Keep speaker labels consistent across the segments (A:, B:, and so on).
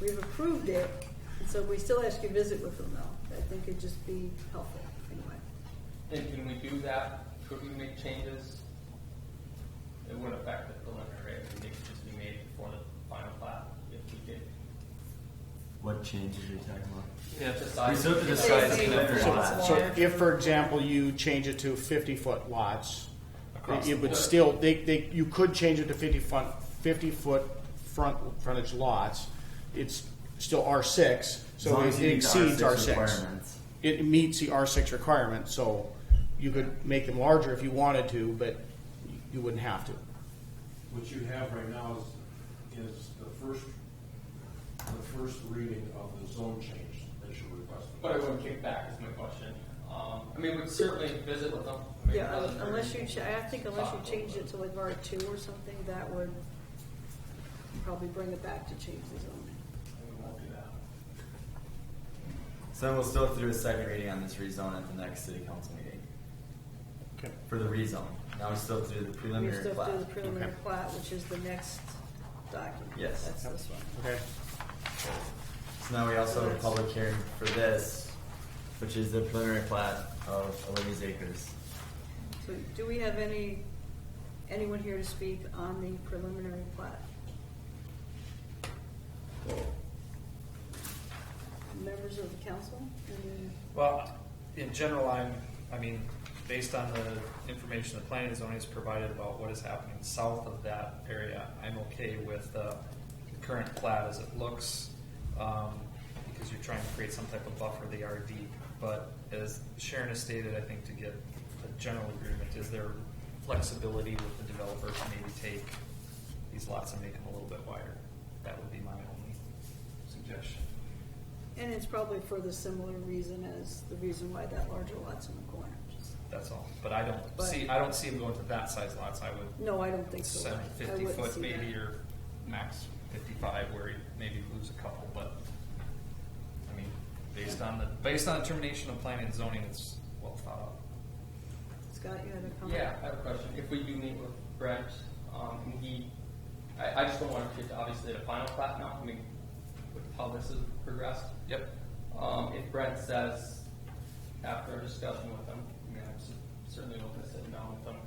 A: we've approved it, and so we still ask you to visit with them though. I think it'd just be helpful anyway.
B: And can we do that? Could we make changes? It wouldn't affect the preliminary, right? They could just be made before the final plat if we did.
C: What changes are you talking about?
B: Yeah, the size.
C: These are the size of the
D: So,
C: lot.
D: so if, for example, you change it to fifty foot lots,
B: Across
D: it
B: the
D: would
B: board.
D: still, they, they, you could change it to fifty front, fifty foot front, frontage lots. It's still R six,
C: As
D: so
C: long
D: it
C: as you meet
D: it
C: the
D: exceeds
C: R6
D: R six.
C: requirements.
D: It meets the R six requirement, so you could make them larger if you wanted to, but you wouldn't have to.
E: What you have right now is, is the first, the first reading of the zone change that you're requesting.
B: But I wouldn't kick back is my question. Um, I mean, we'd certainly visit with them. I mean, it
A: Yeah, uh,
B: doesn't hurt.
A: unless you, cha- I think unless you change it to like R two or something, that would probably bring it back to change the zoning.
B: We won't do that.
C: So then we'll still have to do a second reading on this rezone at the next city council meeting
D: Okay.
C: for the rezone. Now we still have to do the
A: We
C: preliminary
A: still have to do the
C: plat.
A: preliminary
D: Okay.
A: plat, which is the next document.
C: Yes.
A: That's this one.
D: Okay.
C: So now we also have a public hearing for this, which is the preliminary plat of Olivia's Acres.
A: So do we have any, anyone here to speak on the preliminary plat? Members of the council? Any-
F: Well, in general, I'm, I mean, based on the information the planning and zoning has provided about what is happening south of that area, I'm okay with the current plat as it looks, um, because you're trying to create some type of buffer, the RD. But as Sharon has stated, I think to get a general agreement, is there flexibility with the developer to maybe take these lots and make them a little bit wider? That would be my only suggestion.
A: And it's probably for the similar reason as the reason why that larger lot's in the corner. Just-
F: That's all, but I don't
A: But-
F: see, I don't see them going to that size lots, I would
A: No, I don't think so.
F: seven
A: I
F: fifty
A: wouldn't
F: foot
A: see that.
F: maybe or max fifty-five where you maybe lose a couple, but I mean, based on the, based on the termination of planning and zoning, it's well thought out.
A: Scott, you had a comment?
B: Yeah, I have a question. If we do meet with Brent, um, and he, I, I just don't want to get to obviously the final plat now, I mean, with how this has progressed.
F: Yep.
B: Um, if Brent says, after our discussion with him, I mean, I'm cer- certainly open to sitting down with him,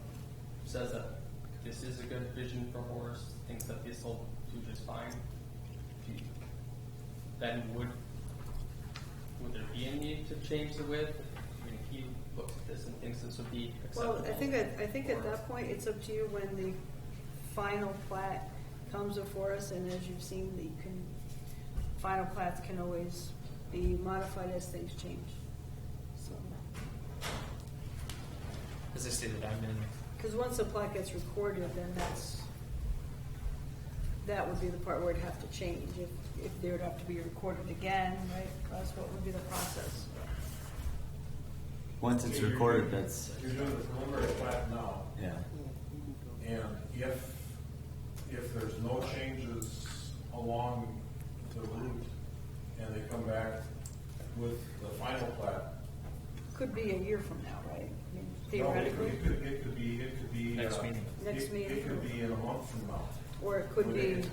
B: says that this is a good vision for Horace, thinks that this will do just fine, do you- then would, would there be a need to change the width? I mean, if he looks at this and thinks this would be acceptable.
A: Well, I think, at- I think at
B: or-
A: that point, it's up to you when the final plat comes before us, and as you've seen, the can, final plats can always be modified as things change. So,
F: As I stated, I'm in,
A: because once the plat gets recorded, then that's, that would be the part where it'd have to change, if, if there would have to be recorded again, right? That's what would be the process.
C: Once it's recorded, that's,
E: You're doing the preliminary plat now,
C: yeah.
E: and if, if there's no changes along the route, and they come back with the final plat,
A: Could be a year from now, right? I mean,
E: no, it
A: Theoretically,
E: could, it could be, it could be. uh,
F: Next meeting.
E: it-
A: Next meeting.
E: It could be in a month from now.
A: or it could
E: Where
A: be.
E: they-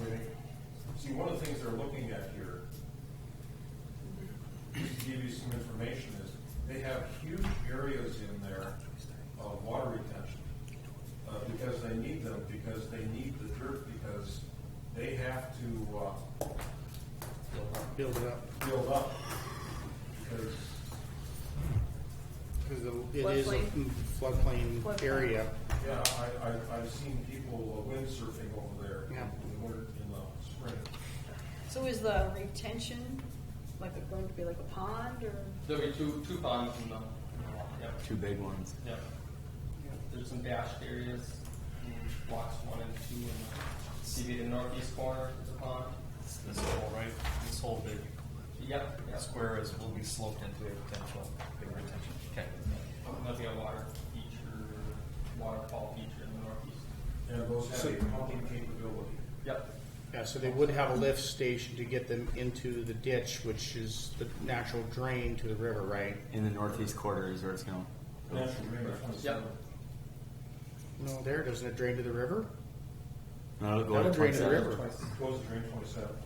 E: where they- See, one of the things they're looking at here, just to give you some information, is they have huge areas in there of water retention. Uh, because they need them, because they need the dirt, because they have to, uh,
D: uh, Build it up,
E: build up. Because,
D: because it is a
A: Floodplain.
D: floodplain
A: Floodplain.
D: area.
E: yeah, I, I, I've seen people windsurfing over there
D: Yeah.
E: in the winter, in the spring.
A: So is the retention, like, it going to be like a pond, or,
B: There'll be two, two ponds in the, yep,
C: Two big ones.
B: yep. There's some dashed areas, in blocks one and two, and see the northeast corner is a pond.
F: this this whole, right, this whole big
B: Yep, yes,
F: square is, will be sloped into a potential big retention. Okay.
B: there'll be a water feature, waterfall feature in the northeast.
E: And those have a pumping capability.
B: Yep,
D: Yeah, so they would have a lift station to get them into the ditch, which is the natural drain to the river, right?
C: In the northeast quarter is where it's going.
E: Natural drainage.
B: Yep.
D: No, there, doesn't it drain to the river?
C: No, it'll go
D: That'll
C: to
D: drain to the
C: 27.
D: river.
E: Twice, close the drain twenty-seven.